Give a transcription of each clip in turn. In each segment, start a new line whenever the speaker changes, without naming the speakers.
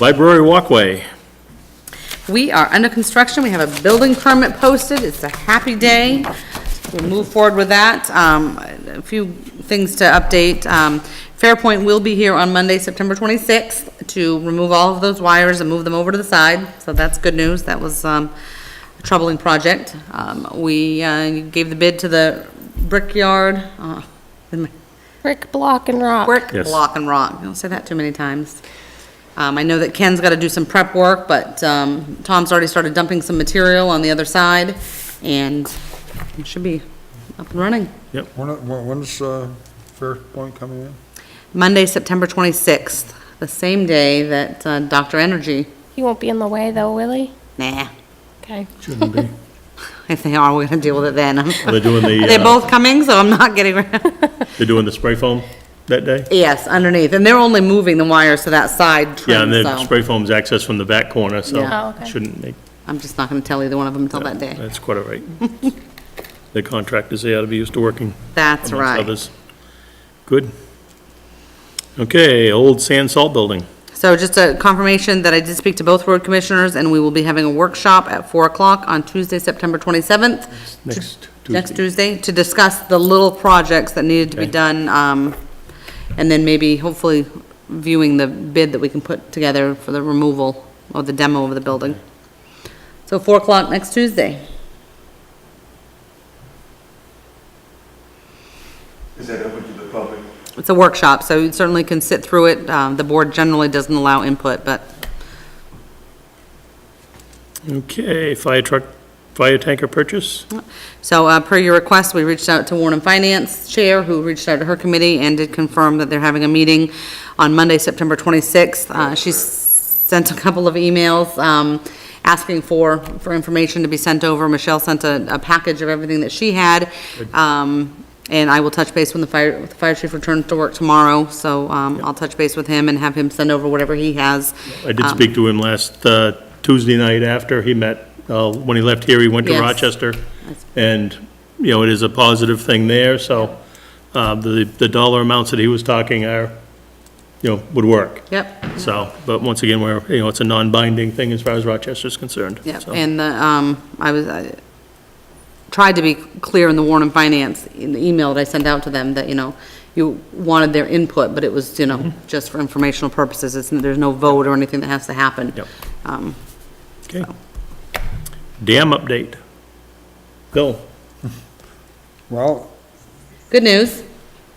Library walkway.
We are under construction, we have a building permit posted, it's a happy day. We'll move forward with that. Um, A few things to update. Um, Fairpoint will be here on Monday, September 26th, to remove all of those wires and move them over to the side, so that's good news. That was um, a troubling project. Um, We uh, gave the bid to the Brickyard, uh, the
Brick, block, and rock.
Brick,
Yes.
Uh, block, and rock. Don't say that too many times. Um, I know that Ken's got to do some prep work, but, um, Tom's already started dumping some material on the other side, and it should be up and running.
When, when- when's, uh, Fair Point coming in?
Monday, September 26th, the same day that uh, Dr. Energy,
He won't be in the way, though, will he?
nah,
Okay.
Shouldn't be.
if they are, we're going to deal with it then.
They're doing the,
They're
uh,
both coming, so I'm not getting, rid-
they're doing the spray foam that day?
yes, underneath, and they're only moving the wires to that side
Yeah, and
trim,
the
so
spray foam's accessed from the back corner,
Yeah.
Oh,
so
okay.
shouldn't make,
I'm just not going to tell either one of them until that day.
that's quite all right. The contractors, they ought to be used to working
That's
amongst
right.
others. Good. Okay, old sand salt building.
So just a confirmation that I did speak to both road commissioners, and we will be having a workshop at 4 o'clock on Tuesday, September 27th.
Next
to- Next
Tuesday.
Tuesday, to discuss the little projects that needed to be
Okay.
done, um, and then maybe hopefully viewing the bid that we can put together for the removal or the demo of the building. So 4 o'clock next Tuesday.
Is that open to the public?
It's a workshop, so you certainly can sit through it. Um, The board generally doesn't allow input, but
Okay, fire truck, fire tanker purchase?
So uh, per your request, we reached out to Warren and Finance Chair, who reached out to her committee and did confirm that they're having a meeting on Monday, September 26th. Uh, She s- sent a couple of emails um, asking for, for information to be sent over. Michelle sent a, a package of everything that she had. Um, And I will touch base when the fire, the fire chief returns to work tomorrow, so um, I'll touch base with him and have him send over whatever he has.
I did
Um,
speak to him last uh, Tuesday night after he met, uh, when he left here, he went to
Yes.
Rochester. And, you know, it is a positive thing there, so uh, the, the dollar amounts that he was talking are, you know, would work.
Yep.
So, but once again, we're, you know, it's a non-binding thing as far as Rochester's concerned.
Yeah,
so.
and the, um, I was, I tried to be clear in the Warren and Finance, in the email that I sent out to them, that, you know, you wanted their input, but it was, you know,
Mm-hmm.
just for informational purposes, it's, there's no vote or anything that has to happen.
Yep.
Um,
Okay. Dam update. Bill,
Well,
Good news,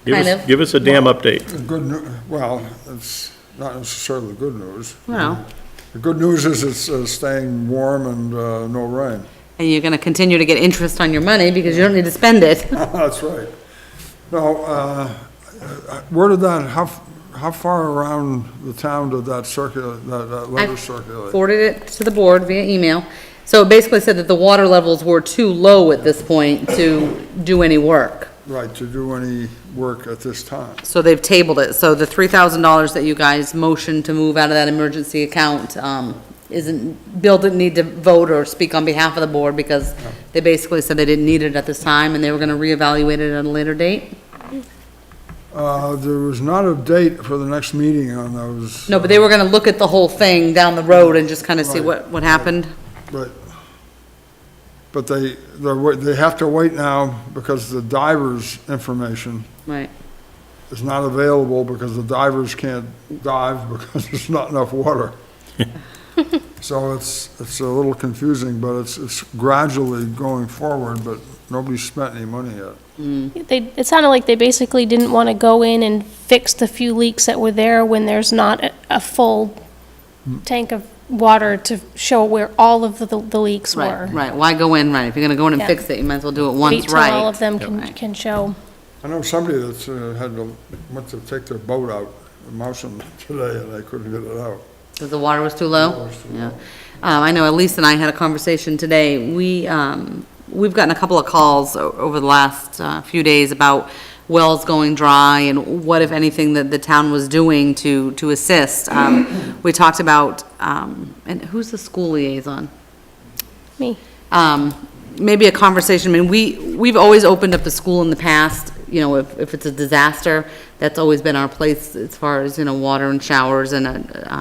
give
Kind
us,
of.
give us a dam update.
the good, nu- well, it's not necessarily good news.
Well.
The good news is it's uh, staying warm and uh, no rain.
and you're gonna continue to get interest on your money because you don't need to spend it.
That's right. No, uh, where did that, how, f- how far around the town did that circulate, that- that
I
letter circulate?
forwarded it to the board via email. So it basically said that the water levels were too low at this point to do any work.
Right, to do any work at this time?
So they've tabled it, so the three thousand dollars that you guys motioned to move out of that emergency account, um, isn't, Bill didn't need to vote or speak on behalf of the board, because they basically said they didn't need it at this time, and they were gonna reevaluate it at a later date.
Uh, There was not a date for the next meeting on those.
No, but they were gonna look at the whole thing down the road and just kinda see
Right.
what, what happened.
But, but they, they're, wa- they have to wait now because the divers' information
Right,
is not available because the divers can't dive because there's not enough water. So it's, it's a little confusing, but it's, it's gradually going forward, but nobody's spent any money yet.
They, it sounded like they basically didn't want to go in and fix the few leaks that were there when there's not a, a full tank of water to show where all of the, the leaks were.
right, right, why go in, right, if you're gonna go in and
Yeah.
fix it, you might as well do it once,
Wait till all of
right.
them can,
Right.
can show.
I know somebody that's uh, had to, went to take their boat out, in Mousen today, and they couldn't get it out.
Because the water was too low?
Water was too
Yeah. Um, I know Elise and I had a conversation today. We, um, we've gotten a couple of calls o- over the last, uh, few days about wells going dry and what, if anything, that the town was doing to, to assist. Um, we talked about, um, and who's the school liaison?
Me.
um, maybe a conversation, I mean, we, we've always opened up the school in the past, you know, if, if it's a disaster, that's always been our place as far as, you know, water and uh, showers and a,